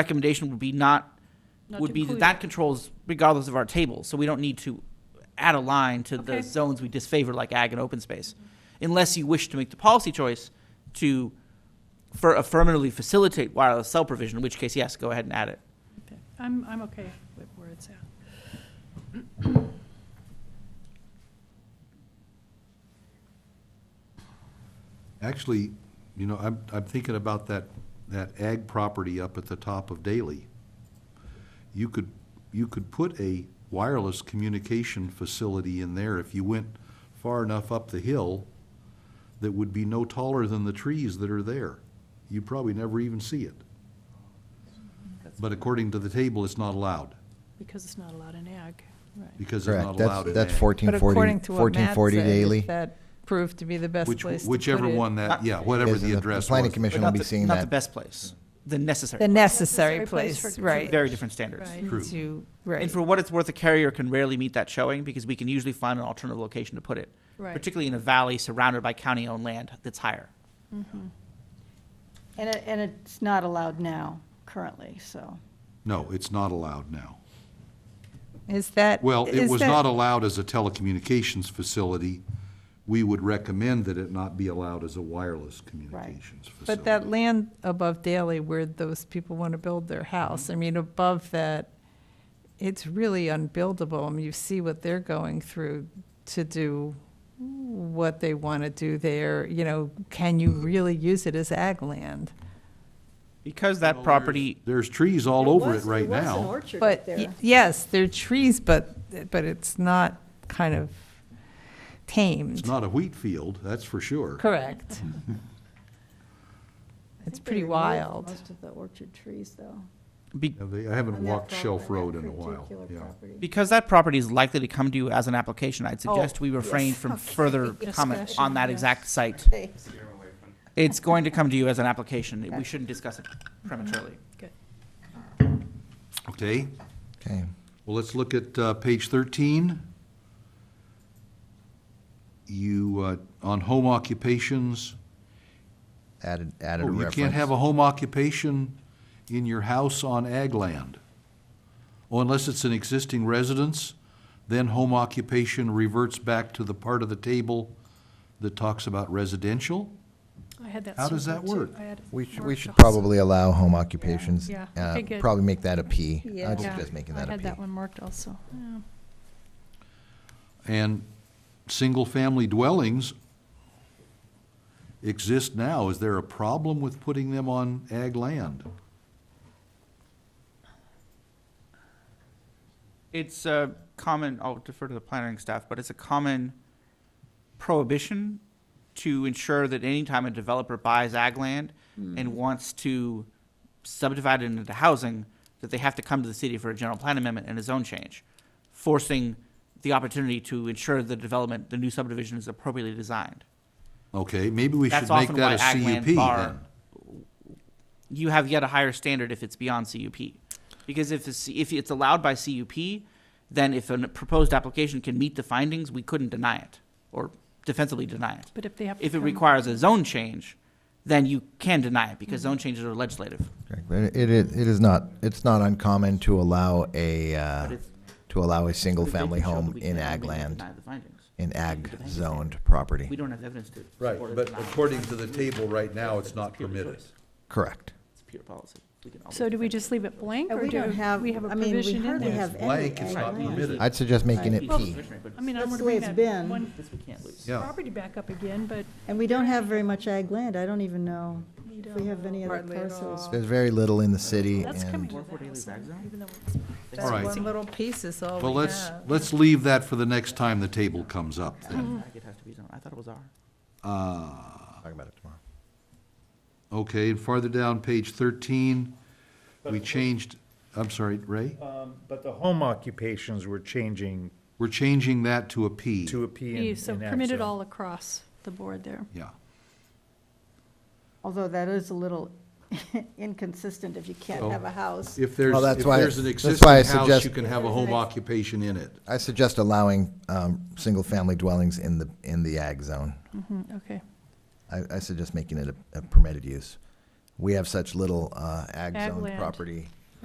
recommendation would be not, Not would to be that include that controls regardless of our table, so we don't need to add a line to the Okay. zones we disfavor like ag and open space. Unless you wish to make the policy choice to for affirmatively facilitate wireless cell provision, in which case, yes, go ahead and add it. Okay. I'm, I'm okay with where it's at. Actually, you know, I'm, I'm thinking about that, that ag property up at the top of Daly. You could, you could put a wireless communication facility in there if you went far enough up the hill that would be no taller than the trees that are there. You'd probably never even see it. But according to the table, it's not allowed, Because it's not allowed in ag, right. because it's not Correct, allowed that's, in that's ag. fourteen But forty, according to what fourteen Matt forty said, daily. if that proved to be the best Which, place to put it. whichever one that, yeah, whatever Yes, and the address The planning was. commission But will not be the- seeing Not the that. best place, the necessary, The place. necessary Necessary place place, for- right. very different standards. Right. True. To, And right. for what it's worth, a carrier can rarely meet that showing because we can usually find an alternative location to put it, Right. particularly in a valley surrounded by county-owned land that's higher. And it, and it's not allowed now, currently, so. No, it's not allowed now. Is that? Well, it is was that- not allowed as a telecommunications facility. We would recommend that it not be allowed as a wireless communications facility. But that land above Daly where those people want to build their house, I mean, above that, it's really unbuildable. I mean, you see what they're going through to do what they want to do there. You know, can you really use it as ag land? Because that property There's trees all over it right now. But, y- yes, there are trees, but, but it's not kind of It's tamed. not a wheat field, that's for sure. Correct. It's pretty wild. Most of the orchard trees, though. Be- Now, they- I haven't walked Shelf Road in a while, yeah. because that property is likely to come to you as an application, I'd suggest we refrain from further comment Discussion, on that yes. exact site. It's going to come to you as an application. We shouldn't discuss it prematurely. Okay, Okay, well, let's look at uh, page 13. You, uh, on home occupations, added, added a oh, you reference. can't have a home occupation in your house on ag land. Oh, unless it's an existing residence, then home occupation reverts back to the part of the table that talks about residential? I had that. How does circled that too. work? I had it We should, we marked should also. probably allow home occupations. Yeah, uh, okay, good. Probably make that a P. Yeah. I'd Yeah. suggest making I that a had P. that one marked also, yeah. And single-family dwellings exist now. Is there a problem with putting them on ag land? It's a common, I'll defer to the planning staff, but it's a common prohibition to ensure that anytime a developer buys ag land and wants to subdivide it into housing, that they have to come to the city for a general plan amendment and a zone change, forcing the opportunity to ensure the development, the new subdivision is appropriately designed. Okay, maybe we should That's make often why that a ag land CUP are- then. You have yet a higher standard if it's beyond CUP. Because if it's, if it's allowed by CUP, then if a proposed application can meet the findings, we couldn't deny it or defensively deny it. But if they have. to If it come- requires a zone change, then you can deny it because zone changes are legislative. Correct. But It, it it is not, it's not uncommon to allow a, uh, But it's- to allow a But if they single-family can show that home we in can, ag we can land, deny the findings. in ag Depends. zoned property. We don't have evidence to. Right, support it, but deny it. according to the table right now, it's not purely permitted. choice. Correct. It's pure policy. We can always So do defend we it. just leave it blank And or we do don't have- we have a I mean, we provision in hardly there? have- It's blank, it's not Right. permitted. I'd suggest making it It's P. discretionary, but I mean, I That's want to the way bring it's that been. one This we can't lose. Yeah. property back up again, but And we don't have very much ag land. I don't even know We if don't we have any other Hardly at parcels. all. There's very little in the city that's coming and to Four forty the leaves house, ag zone? even though it's All right. One little piece is all we have. Well, let's, let's leave that for the next time the table comes up then. Ag, It has to be zoned. I thought it was R. talk about it tomorrow. Okay, and farther down, page thirteen, we changed, I'm sorry, Ray? Um, But the home occupations were changing We're changing that to a P. to a P in Yeah, so in ag permitted zone. all across the board there. Yeah. Although that is a little inconsistent if you Oh. can't have a house. If there's, Well, Oh, that's if why- there's an that's why I existing house, suggest- you can have a home occupation in it. I suggest allowing, um, single-family dwellings in the, in the ag zone. Mhm, Okay. I, I suggest making it a, a permitted use we have such little uh, ag Ag zoned land. property